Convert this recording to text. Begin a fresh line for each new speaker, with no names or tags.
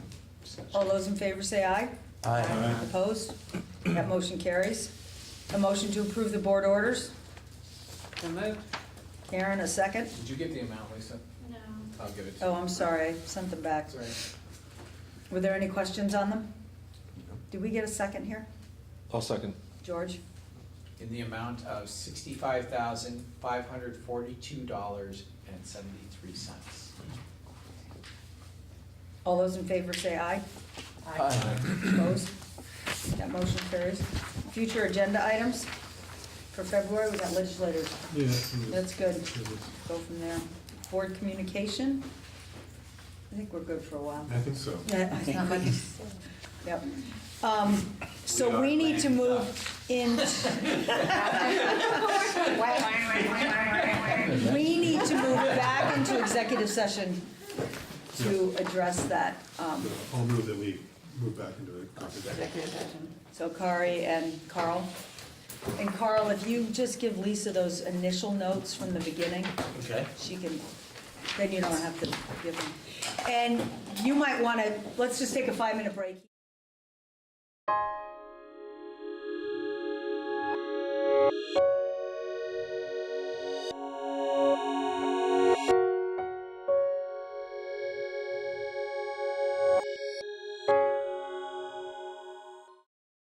All those in favor say aye.
Aye.
Opposed? That motion carries. A motion to approve the board orders.
So moved.
Karen, a second.
Did you get the amount, Lisa?
No.
I'll give it to you.
Oh, I'm sorry, I sent them back.
That's all right.
Were there any questions on them? Did we get a second here?
I'll second.
George?
In the amount of sixty-five thousand, five hundred forty-two dollars and seventy-three cents.
All those in favor say aye.
Aye.
Opposed? That motion carries. Future agenda items for February, we got legislators.
Yeah, that's in the-
That's good.
in the-
Go from there. Board communication? I think we're good for a while.
I think so.
Yeah, it's not much. Yep. Um, So we need to move in, we need to move back into executive session to address that. Um,
I'll move that we move back into the conference.
So Kari and Carl. And Carl, if you just give Lisa those initial notes from the beginning,
Okay.
she can, then you don't have to give them. And you might want to, let's just take a five-minute break.